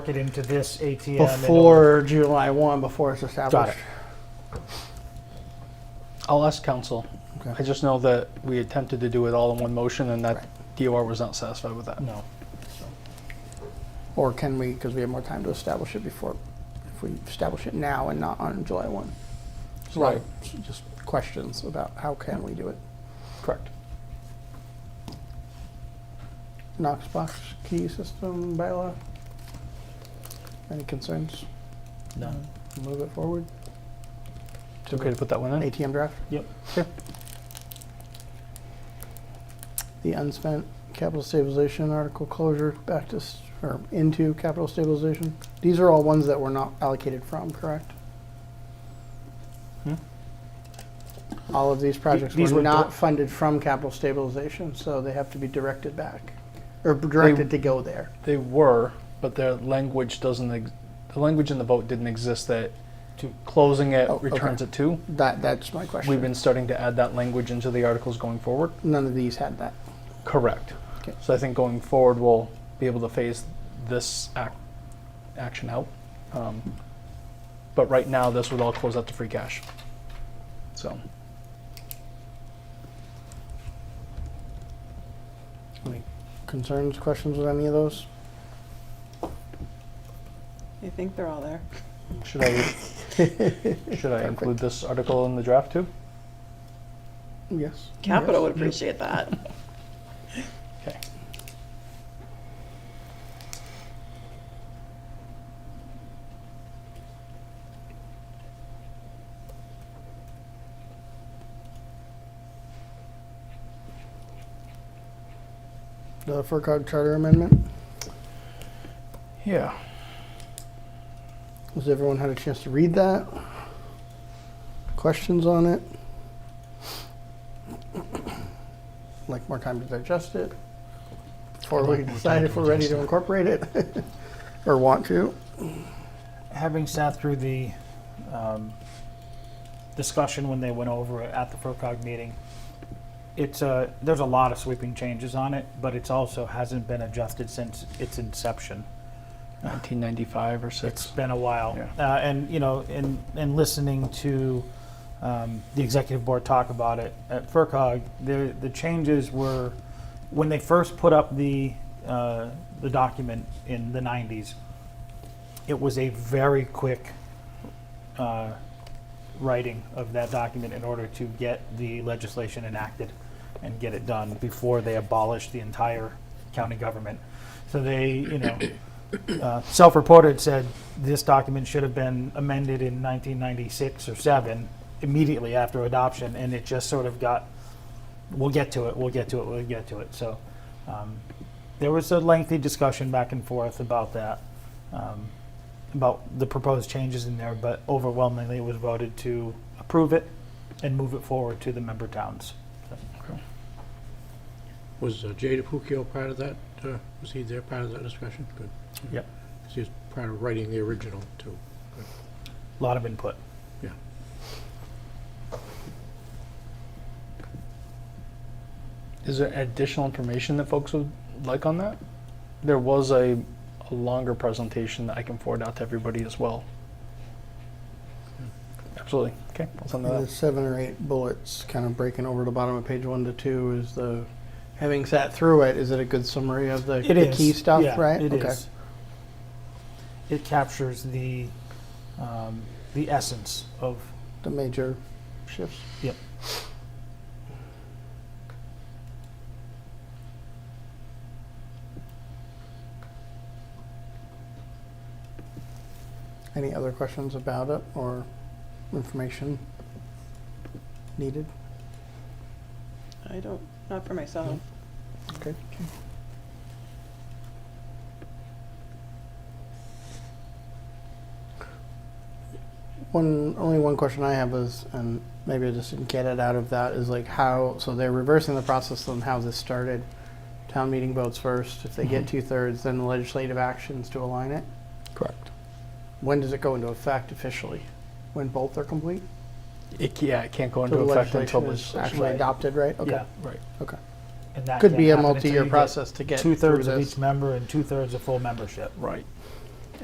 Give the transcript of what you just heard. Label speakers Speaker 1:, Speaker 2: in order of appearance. Speaker 1: it into this ATM. and it'll-
Speaker 2: before July 1, before it's
Speaker 1: Got
Speaker 2: established.
Speaker 1: it.
Speaker 3: I'll ask council.
Speaker 2: Okay.
Speaker 3: I just know that we attempted to do it all in one motion and that DOR was not satisfied with that.
Speaker 1: No.
Speaker 2: Or can we, because we have more time to establish it before, if we establish it now and not on July 1?
Speaker 3: Right.
Speaker 2: Just questions about how can we do it?
Speaker 3: Correct.
Speaker 2: Knox box key system bylaw? Any concerns?
Speaker 1: No.
Speaker 2: Move it forward?
Speaker 3: It's okay to put that one in?
Speaker 2: ATM draft?
Speaker 1: Yep.
Speaker 2: Okay. The unspent capital stabilization article closure back to, s- or into capital stabilization. These are all ones that were not allocated from, correct?
Speaker 3: Hmm?
Speaker 2: All of these projects
Speaker 1: these
Speaker 2: were
Speaker 1: were
Speaker 2: not
Speaker 1: bought-
Speaker 2: funded from capital stabilization, so they have to be directed back, or directed to go there.
Speaker 3: They were, but their language doesn't, ex- the language in the vote didn't exist that
Speaker 1: To-
Speaker 3: closing it
Speaker 2: Oh, okay.
Speaker 3: returns it to.
Speaker 2: That, that's my question.
Speaker 3: We've been starting to add that language into the articles going forward.
Speaker 2: None of these had that.
Speaker 3: Correct.
Speaker 2: Okay.
Speaker 3: So I think going forward, we'll be able to phase this ac- action out. Um, But right now, this would all close out to free cash. So.
Speaker 2: Any concerns, questions with any of those?
Speaker 4: I think they're all there.
Speaker 3: Should I, should I include this article in the draft too?
Speaker 2: Yes.
Speaker 4: Capital would appreciate that.
Speaker 3: Okay.
Speaker 2: The FERCog charter amendment.
Speaker 3: Yeah.
Speaker 2: Has everyone had a chance to read that? Questions on it? Like more time to digest it? Before we decide if we're ready to incorporate it or want to?
Speaker 1: Having sat through the um, discussion when they went over it at the FERCog meeting, it's a, there's a lot of sweeping changes on it, but it's also hasn't been adjusted since its inception.
Speaker 3: 1995 or
Speaker 1: It's
Speaker 3: six.
Speaker 1: been a while. Uh, And, you know, and, and listening to um, the executive board talk about it at FERCog, the, the changes were, when they first put up the, uh, the document in the 90s, it was a very quick uh, writing of that document in order to get the legislation enacted and get it done before they abolished the entire county government. So they, you know, uh, self-reported said this document should have been amended in 1996 or 7 immediately after adoption and it just sort of got we'll get to it we'll get to it we'll get to it so um, there was a lengthy discussion back and forth about that um, about the proposed changes in there but overwhelmingly it was voted to approve it and move it forward to the member towns
Speaker 5: Was uh, Jay DePuccio part of that? uh, Was he there part of that discussion? Good.
Speaker 1: Yep.
Speaker 5: 'Cause he was part of writing the original, too.
Speaker 1: a lot of input
Speaker 3: Is there additional information that folks would like on that? There was a a longer presentation that I can forward out to everybody as well. Absolutely. Okay, I'll send that out.
Speaker 2: The seven or eight bullets, kind of breaking over the bottom of page one to two is the, having sat through it, is it a good summary of the
Speaker 1: It
Speaker 2: the
Speaker 1: is,
Speaker 2: key stuff,
Speaker 1: yeah,
Speaker 2: right?
Speaker 1: It
Speaker 2: Okay.
Speaker 1: is. It captures the um, the essence of
Speaker 2: The major shifts.
Speaker 1: Yep.
Speaker 2: Any other questions about it or information needed?
Speaker 4: I don't, not for myself.
Speaker 2: Okay. One, only one question I have is, and maybe I just didn't get it out of that, is like how, so they're reversing the process on how this started. Town meeting votes first, if they get two thirds, then legislative actions to align it.
Speaker 3: Correct.
Speaker 2: When does it go into effect officially? When both are complete?
Speaker 3: It, ca- yeah, it can't go
Speaker 2: So
Speaker 3: into
Speaker 2: the
Speaker 3: effect
Speaker 2: legislation
Speaker 3: until
Speaker 2: is
Speaker 3: it's
Speaker 2: actually adopted, right? Okay.
Speaker 1: yeah.
Speaker 3: Right.
Speaker 2: Okay.
Speaker 1: And that
Speaker 2: Could be a multi-year process to get
Speaker 1: Two thirds
Speaker 2: through
Speaker 1: of
Speaker 2: this.
Speaker 1: each member and two thirds of full membership.
Speaker 3: Right.